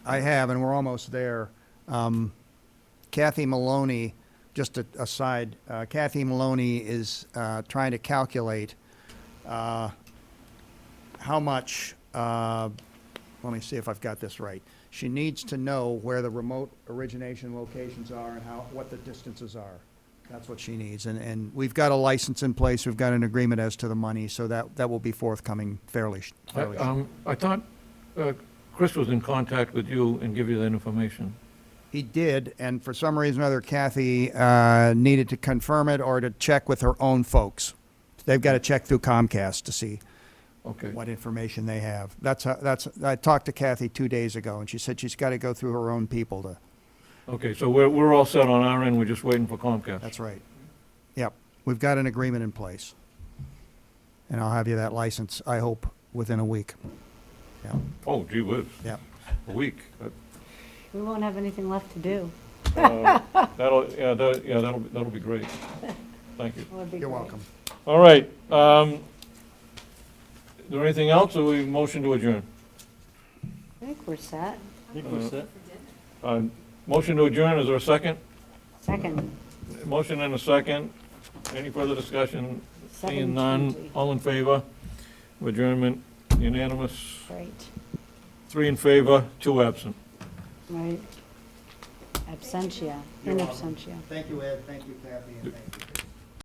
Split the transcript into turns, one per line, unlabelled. I have, and we're almost there. Um, Kathy Maloney, just a, aside, uh, Kathy Maloney is uh, trying to calculate uh, how much. Uh, let me see if I've got this right. She needs to know where the remote origination locations are and how what the distances are. That's what she needs, and and we've got a license in place. We've got an agreement as to the money, so that that will be forthcoming fairly. sh-
I-
fairly
um, I thought uh, Chris was in contact with you and give you that information.
He did, and for some reason or other, Kathy uh, needed to confirm it or to check with her own folks. They've got to check through Comcast to see
Okay,
what information they have. That's how, that's. I talked to Kathy two days ago, and she said she's got to go through her own people to.
okay, so we're, we're all set on our end, we're just waiting for Comcast.
That's right. Yep, we've got an agreement in place, and I'll have you that license. I hope within a week. Yeah,
Oh, gee whiz,
yeah.
a week. Uh,
We won't have anything left to do.
That'll, yeah, that, yeah, that'll, that'll be great. Thank you.
That would be
You're
great.
welcome.
All right, um, is there anything else, or we motion to adjourn?
I think we're set.
Um, Motion to adjourn, is there a second?
Second.
Motion and a second. Any further discussion? Seeing none,
7:20.
all in favor? Adjournment unanimous.
Great,
Three in favor, two absent.
right. Absentia,
You're
in
welcome.
absentia.
Thank you, Ed. Thank you, Kathy, and thank you.